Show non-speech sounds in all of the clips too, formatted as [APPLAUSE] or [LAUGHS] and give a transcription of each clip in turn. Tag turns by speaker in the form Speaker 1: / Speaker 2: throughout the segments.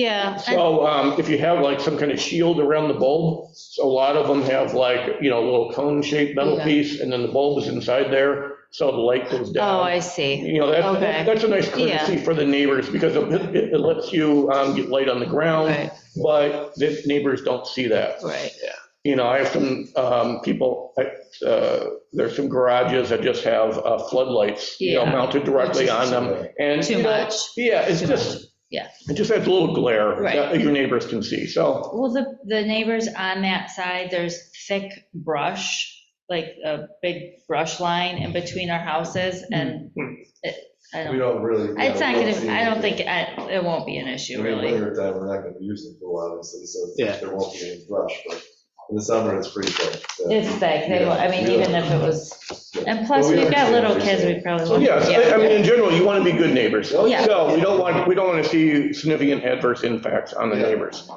Speaker 1: Yeah, I-
Speaker 2: So um, if you have like some kind of shield around the bulb, so a lot of them have like, you know, a little cone-shaped metal
Speaker 1: Yeah.
Speaker 2: piece, and then the bulb is inside there, so the light goes down.
Speaker 1: oh, I see.
Speaker 2: You know,
Speaker 1: Okay.
Speaker 2: that's, that's a nice
Speaker 1: Yeah.
Speaker 2: courtesy for the neighbors, because it it lets you um, get light on the ground,
Speaker 1: Right,
Speaker 2: but the neighbors don't see that.
Speaker 1: right.
Speaker 2: You know, I have some um, people, I- uh, there's some garages that just have uh, floodlights, you know,
Speaker 1: Yeah.
Speaker 2: mounted directly on them, and.
Speaker 1: Too
Speaker 2: you know,
Speaker 1: much.
Speaker 2: Yeah, it's
Speaker 1: Too much.
Speaker 2: just,
Speaker 1: Yeah.
Speaker 2: it just adds a little glare
Speaker 1: Right.
Speaker 2: that your neighbors can see, so,
Speaker 1: Well, the, the neighbors on that side, there's thick brush, like a big brush line in between our houses and it- I don't,
Speaker 3: We don't really. yeah,
Speaker 1: it's not
Speaker 3: we see
Speaker 1: gonna, I don't think,
Speaker 3: anything.
Speaker 1: I- it won't be an issue,
Speaker 3: I mean,
Speaker 1: really.
Speaker 3: Winter time, we're not gonna use it for a while, obviously, so
Speaker 4: Yeah.
Speaker 3: there won't be any brush, but in the summer, it's pretty thick. so.
Speaker 1: It's thick, they, will- I mean, even if it was, and plus, we've got little kids, we probably
Speaker 2: so
Speaker 1: won't.
Speaker 2: yes, I- I mean, in general, you want to be good neighbors.
Speaker 3: Oh,
Speaker 1: Oh, yeah.
Speaker 2: So we don't want, we don't want to see significant adverse impacts on the
Speaker 3: Yeah.
Speaker 2: neighbors.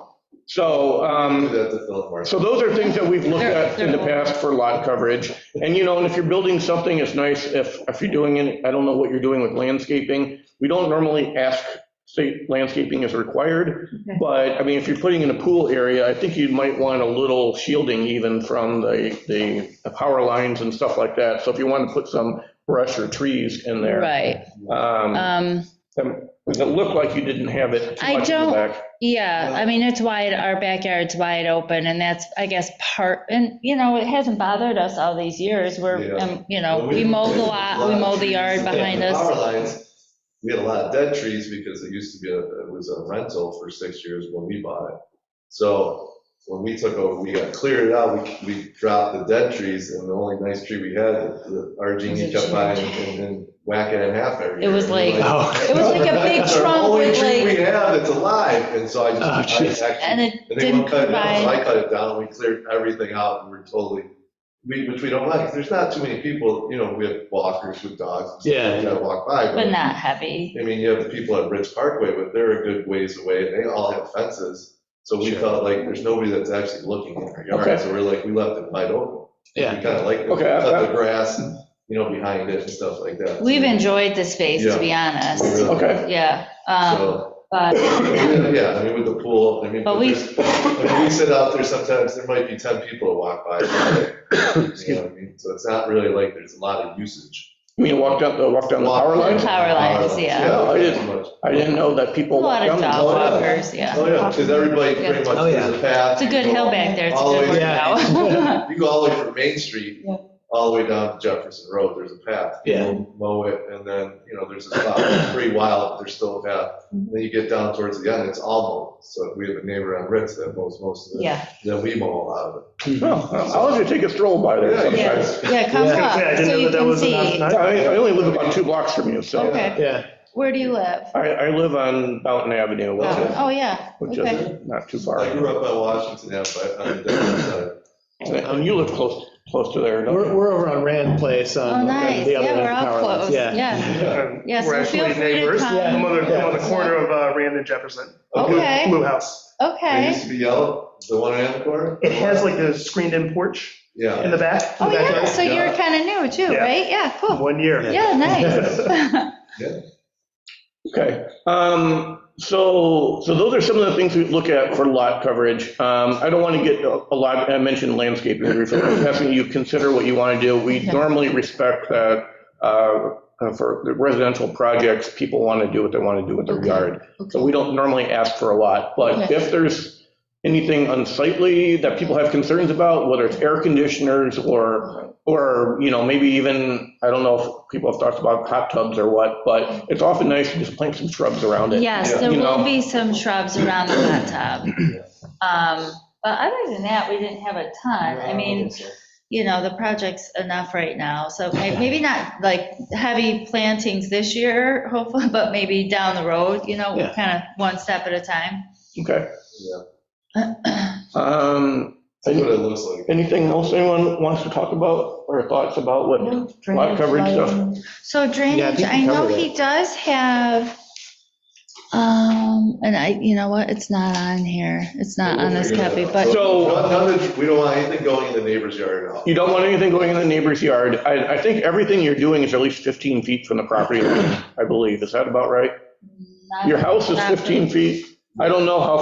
Speaker 2: So,
Speaker 3: Do
Speaker 2: um,
Speaker 3: that to fill more.
Speaker 2: so those are things that we've looked at in the past for lot coverage. And, you know, and if you're building something, it's nice if, if you're doing, it. I don't know what you're doing with landscaping. We don't normally ask, say landscaping is required,
Speaker 1: Okay.
Speaker 2: but, I mean, if you're putting in a pool area, I think you might want a little shielding even from the, the power lines and stuff like that. So if you want to put some brush or trees in there.
Speaker 1: Right,
Speaker 2: Um,
Speaker 1: um,
Speaker 2: Does it look like you didn't have it too
Speaker 1: I
Speaker 2: much in the
Speaker 1: don't-
Speaker 2: back?
Speaker 1: yeah, I mean, it's wide, our backyard's wide open, and that's, I guess, part, and, you know, it hasn't bothered us all these years, we're,
Speaker 3: Yeah.
Speaker 1: um, you know, we mow the lot, we mow the yard behind us.
Speaker 3: Power lines, we had a lot of dead trees because it used to be, a- it was a rental for six years when we bought it. So when we took over, we got cleared out, we, we dropped the dead trees and the only nice tree we had, the- our genie kept by and- and and whacking it in half every
Speaker 1: It
Speaker 3: year.
Speaker 1: was
Speaker 3: And we're
Speaker 4: Oh,
Speaker 1: like- It was like
Speaker 4: [LAUGHS]
Speaker 1: a [LAUGHS] big
Speaker 3: That's our
Speaker 1: trunk
Speaker 3: only
Speaker 1: with
Speaker 3: tree
Speaker 1: like,
Speaker 3: We have, it's alive, and so I
Speaker 4: Oh,
Speaker 3: just, I
Speaker 4: jeez.
Speaker 3: actually.
Speaker 1: and it
Speaker 3: I think
Speaker 1: didn't
Speaker 3: one cut it down, so
Speaker 1: provide,
Speaker 3: I cut it down, we cleared everything out, and we're totally, we, which we don't like, there's not too many people, you know, we have walkers with dogs. and stuff
Speaker 4: Yeah.
Speaker 3: like That walk by,
Speaker 1: but
Speaker 3: but,
Speaker 1: not heavy.
Speaker 3: I mean, you have the people at Ridge Parkway, but they're a good ways away, and they all have fences, so we
Speaker 4: Sure.
Speaker 3: felt like there's nobody that's actually looking in our
Speaker 2: Okay.
Speaker 3: yard, so we're like, we left it wide open.
Speaker 4: Yeah.
Speaker 3: We kinda like, it. We
Speaker 2: Okay, I-
Speaker 3: cut the grass, you know, behind it and stuff like that.
Speaker 1: We've enjoyed the space, to be honest.
Speaker 3: really-
Speaker 2: Okay.
Speaker 1: Yeah, um,
Speaker 3: So,
Speaker 1: but,
Speaker 3: Yeah, I mean, with the pool, I mean,
Speaker 1: But
Speaker 3: but
Speaker 1: we-
Speaker 3: there's- when we sit out there, sometimes there might be 10 people that walk by. You know what I mean? So it's not really like there's a lot of usage.
Speaker 2: I mean, walk down, the walk down the power line?
Speaker 1: Power lines, yeah.
Speaker 2: Yeah, I didn't-
Speaker 3: pretty much.
Speaker 2: I didn't know that
Speaker 1: a
Speaker 2: people
Speaker 1: lot
Speaker 2: walk down
Speaker 1: of
Speaker 2: the
Speaker 1: dog
Speaker 3: Oh, yeah.
Speaker 2: power line.
Speaker 1: walkers, yeah.
Speaker 3: Oh, yeah, because everybody pretty much,
Speaker 4: Oh, yeah.
Speaker 3: there's a path.
Speaker 1: It's a good hill back there, it's a good workout.
Speaker 3: You go all the way from Main Street,
Speaker 1: Yeah.
Speaker 3: all the way down to Jefferson Road, there's a path. You
Speaker 4: Yeah.
Speaker 3: know, Mow it, and then, you know, there's a spot, it's pretty wild, but there's still a path.
Speaker 1: Mm-hmm.
Speaker 3: Then you get down towards the end, it's all mowed. So we have a neighbor on Ritz that mows most of it.
Speaker 1: Yeah,
Speaker 3: Then we mow a lot of
Speaker 2: Oh, I'll let you take a stroll by there
Speaker 3: it.
Speaker 1: [LAUGHS]
Speaker 2: sometime.
Speaker 1: Yeah. yeah, come
Speaker 4: Yeah. I was gonna
Speaker 1: up,
Speaker 5: say, I didn't
Speaker 1: so
Speaker 5: know
Speaker 1: you
Speaker 5: that that
Speaker 1: can
Speaker 5: was an
Speaker 1: see.
Speaker 5: option.
Speaker 2: I I only live about two blocks from you, so
Speaker 1: Okay,
Speaker 4: Yeah,
Speaker 1: where do you live?
Speaker 2: I, I live on Fountain Avenue, which
Speaker 1: Oh,
Speaker 2: is,
Speaker 1: oh, yeah,
Speaker 2: which
Speaker 1: okay.
Speaker 2: is not too
Speaker 3: I
Speaker 2: far.
Speaker 3: grew up on Washington Ave, but on the different side.
Speaker 1: [LAUGHS]
Speaker 2: And Um, you live close, close to there,
Speaker 4: we're,
Speaker 2: don't you?
Speaker 4: we're over on Rand Place
Speaker 1: Oh,
Speaker 4: on the other
Speaker 1: nice,
Speaker 4: end
Speaker 1: yeah,
Speaker 4: of the
Speaker 1: we're
Speaker 4: power
Speaker 1: all
Speaker 4: lines.
Speaker 1: close,
Speaker 4: Yeah, [LAUGHS]
Speaker 1: yeah.
Speaker 3: Yeah.
Speaker 1: Yeah,
Speaker 5: Uh, We're
Speaker 1: so feel
Speaker 5: actually
Speaker 1: free to
Speaker 5: neighbors. I'm
Speaker 1: come.
Speaker 5: on the, I'm on the
Speaker 1: Yeah.
Speaker 5: corner of uh, Rand and Jefferson.
Speaker 1: Okay.
Speaker 5: Blue house.
Speaker 3: It
Speaker 1: Okay,
Speaker 3: used to be yellow, the one in Amcor?
Speaker 5: It has like a screened-in porch in
Speaker 3: Yeah.
Speaker 5: the back. in
Speaker 1: oh,
Speaker 5: the
Speaker 1: yeah,
Speaker 5: backyard.
Speaker 1: so you're kind of new too,
Speaker 5: Yeah.
Speaker 1: right? Yeah, cool.
Speaker 5: One year.
Speaker 1: Yeah, nice.
Speaker 2: Okay, um, so, so those are some of the things we look at for lot coverage. Um, I don't want to get a a lot, I mentioned landscaping, briefly. I'm asking you to consider what you want to do. We
Speaker 1: Okay.
Speaker 2: normally respect that, uh, for the residential projects, people want to do what they want to do with their
Speaker 1: Okay.
Speaker 2: yard.
Speaker 1: [LAUGHS]
Speaker 2: So we don't normally ask for a lot, but
Speaker 1: Okay.
Speaker 2: if there's anything unsightly that people have concerns about, whether it's air conditioners or, or, you know, maybe even, I don't know if people have thoughts about hot tubs or what, but it's often nice to just plant some shrubs around it.
Speaker 1: Yes, there
Speaker 2: You know.
Speaker 1: will be some shrubs around the hot tub. Um, But other than that, we didn't have a ton. I mean, you know, the project's enough right now, so may- maybe not like heavy plantings this year, hopefully, [LAUGHS] but maybe down the road, you know,
Speaker 4: Yeah.
Speaker 1: kind of one step at a time.
Speaker 2: Okay.
Speaker 3: Yeah.
Speaker 2: Um,
Speaker 3: That's what it looks like.
Speaker 2: anything else anyone wants to talk about or thoughts about what? Lot coverage stuff.
Speaker 1: So
Speaker 4: Yeah, I
Speaker 1: drainage,
Speaker 4: think
Speaker 1: I
Speaker 4: we
Speaker 1: know
Speaker 4: covered
Speaker 1: he does have, um, and I, you know what, it's not on here, it's not on this copy, but,
Speaker 2: So-
Speaker 3: None- none of the- We don't want anything going in the neighbor's yard at all.
Speaker 2: You don't want anything going in the neighbor's yard. I, I think everything you're doing is at least 15 feet from the property line, I believe. Is that about right? Your house is 15 feet? I don't know how